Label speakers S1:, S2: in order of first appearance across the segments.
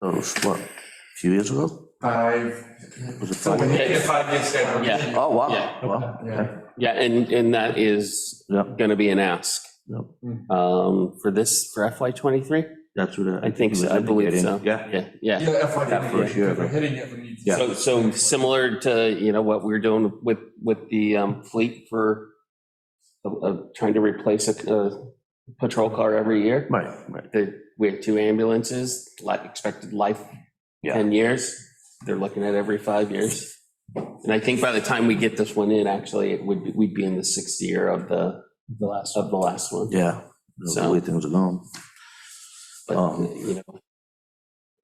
S1: That was, what, Oh, a few years ago?
S2: Five,
S1: Was it
S2: something,
S1: five?
S2: yeah, five years ago.
S3: Yeah.
S1: Oh, wow,
S3: Yeah.
S1: wow, okay,
S3: Yeah, and, and that is
S1: yeah,
S3: going to be an ask
S1: yeah,
S3: um, for this, for FY '23?
S1: that's what I.
S3: I think
S1: he
S3: so,
S1: was
S3: I believe
S1: indicating.
S3: so.
S1: Yeah,
S3: Yeah, yeah.
S2: Yeah, FY
S1: That
S2: twenty-eight,
S1: first year,
S2: if we're
S1: right.
S2: hitting it, we need to.
S1: Yeah.
S3: So, so similar to, you know, what we we're doing with, with the um, fleet for uh, uh, trying to replace a uh, patrol car every year.
S1: right, right,
S3: The- We have two ambulances, li- expected life
S1: Yeah.
S3: 10 years. They're looking at every five years. And I think by the time we get this one in, actually, it would, be- we'd be in the sixth year of the, the last, of the last one.
S1: yeah, the
S3: So-
S1: way things are going.
S3: But,
S1: Um,
S3: you know,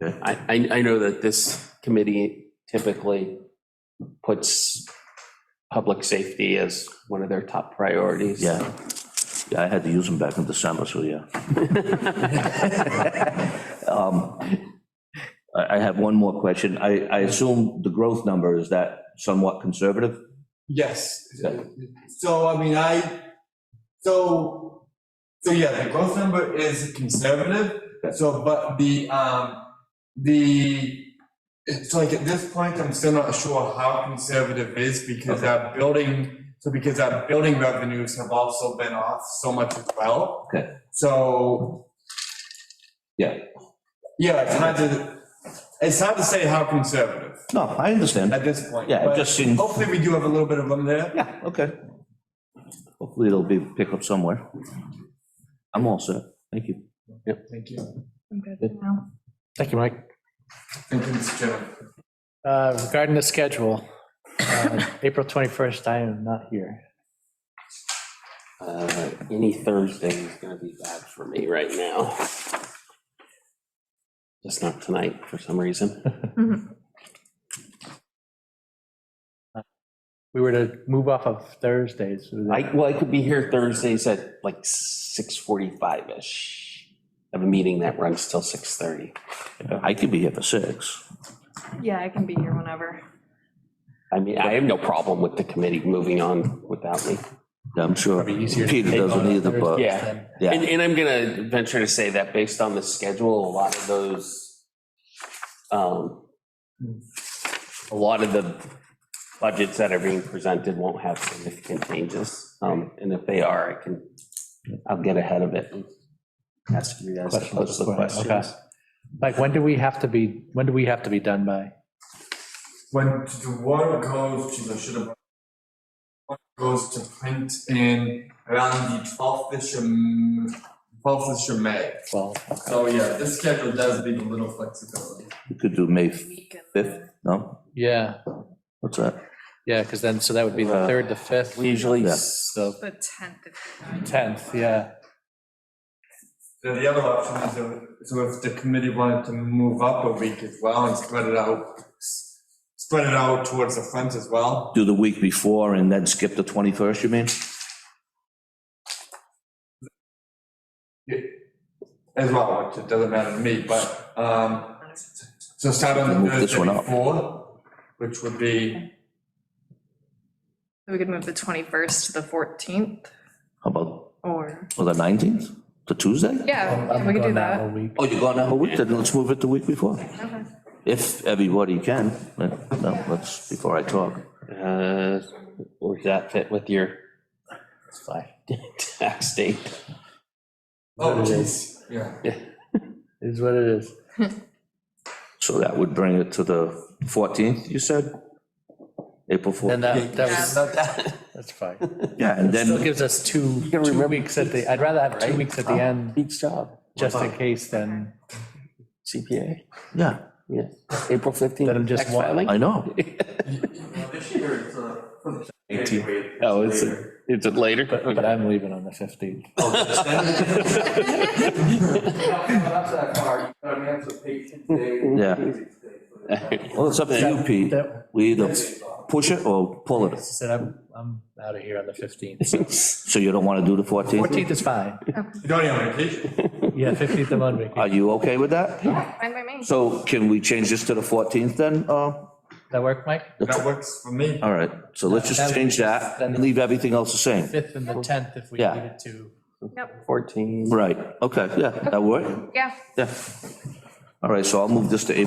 S1: okay.
S3: I, I, I know that this committee typically puts public safety as one of their top priorities.
S1: Yeah, yeah, I had to use them back in December, so yeah. Um, I, I have one more question. I, I assume the growth number, is that somewhat conservative?
S2: Yes.
S1: Yeah.
S2: So, I mean, I, so, so yeah, the growth number is conservative. So, but the, um, the, it's like at this point, I'm still not sure how conservative is because our building, so because our building revenues have also been off so much as well.
S1: Okay.
S2: So.
S1: Yeah.
S2: Yeah, it's hard to, it's hard to say how conservative
S1: No, I understand.
S2: at this point.
S1: Yeah, it
S2: but
S1: just seems,
S2: Hopefully, we do have a little bit of them there.
S1: yeah, okay. Hopefully it'll be, pick up somewhere. I'm all set. Thank you.
S2: Thank you.
S4: I'm good for now.
S5: Thank you, Mike.
S2: Thank you, Mr. Chairman.
S5: Uh, Regarding the schedule, uh, April 21st, I am not here.
S3: Uh, Any Thursday is gonna be bad for me right now. Just not tonight for some reason.
S5: We were to move off of Thursdays. so that-
S3: I, well, I could be here Thursdays at like six forty-five-ish. I have a meeting that runs till six thirty.
S1: I could be here for six.
S4: Yeah, I can be here whenever.
S3: I mean, I have no problem with the committee moving on without me.
S1: I'm sure
S5: Probably easier to
S1: Peter
S5: take
S1: doesn't
S5: on a
S1: either, but,
S5: Thursday
S3: Yeah.
S5: than-
S3: And,
S1: yeah,
S3: and I'm gonna venture to say that based on the schedule, a lot of those, um, a lot of the budgets that are being presented won't have significant changes. Um, and if they are, I can, I'll get ahead of it and ask you guys to
S5: Questions
S3: post the
S5: before- okay.
S3: questions.
S5: Mike, when do we have to be, when do we have to be done by?
S2: When the warrant goes, geez, I should have. warrant Goes to print in around the twelfth ish of, twelfth ish of May.
S5: Well,
S2: So yeah, this schedule does leave a little flexibility.
S1: we could do May
S4: Weekend.
S1: 5th, no?
S5: yeah,
S1: What's that?
S5: yeah, because then, so that would be the 3rd, the 5th,
S3: Uh, We usually,
S1: Yeah.
S3: s-
S5: the
S4: The tenth.
S5: 10th, yeah.
S2: Then the other option is, if- so if the committee wanted to move up a week as well and spread it out, s- spread it out towards the front as well.
S1: Do the week before and then skip the 21st, you mean?
S2: As well, which it doesn't matter to me, but, um, So start on the
S1: Move this one
S2: Thursday
S1: up.
S2: before, which would be,
S4: We could move the twenty-first to the fourteenth
S1: How about,
S4: or,
S1: or the 19th, the Tuesday?
S4: yeah,
S5: Oh, I'm
S4: we could do
S5: gone that
S4: that.
S5: whole week.
S1: Oh, you're going out a week, then let's move it the week before,
S4: Okay.
S1: if everybody can. Let- No, let's, before I talk.
S3: uh, or does that fit with your tax date?
S2: oh
S5: That
S2: jeez, yeah.
S5: Is what it is.
S1: So that would bring it to the 14th, you said? April 4th.
S5: Then that, that was,
S2: Not that-
S5: that's fine.
S1: Yeah, and
S5: Still
S1: then,
S5: gives us two, two weeks at the, I'd rather have two weeks at the
S3: Uh,
S5: end,
S3: Pete's job,
S5: just in case than,
S3: CPA,
S1: yeah,
S3: yeah, April
S5: Let him
S3: fifteenth,
S5: just
S3: tax
S5: walk.
S3: filing.
S1: I know.
S2: uh,
S3: Oh, it's, it's later?
S5: but but I'm leaving on the 15th.
S1: Yeah. Well, it's up to you, Pete.
S5: That-
S1: We either push it or pull it.
S5: said, I'm, I'm out of here on the 15th.
S1: So you don't want to do the 14th?
S5: 14th is fine.
S2: You don't even have vacation.
S5: Yeah, 15th I'm on vacation.
S1: Are you okay with that?
S4: Fine by me.
S1: So can we change this to the 14th then? Uh,
S5: That work, Mike?
S2: That works for me.
S1: All right, so let's just change that and leave everything else the same.
S5: 5th and the 10th if we
S1: Yeah.
S5: needed to.
S4: Yep,
S3: Fourteen.
S1: Right, okay, yeah, that work?
S4: yeah,
S1: Yeah. All right, so I'll move this to April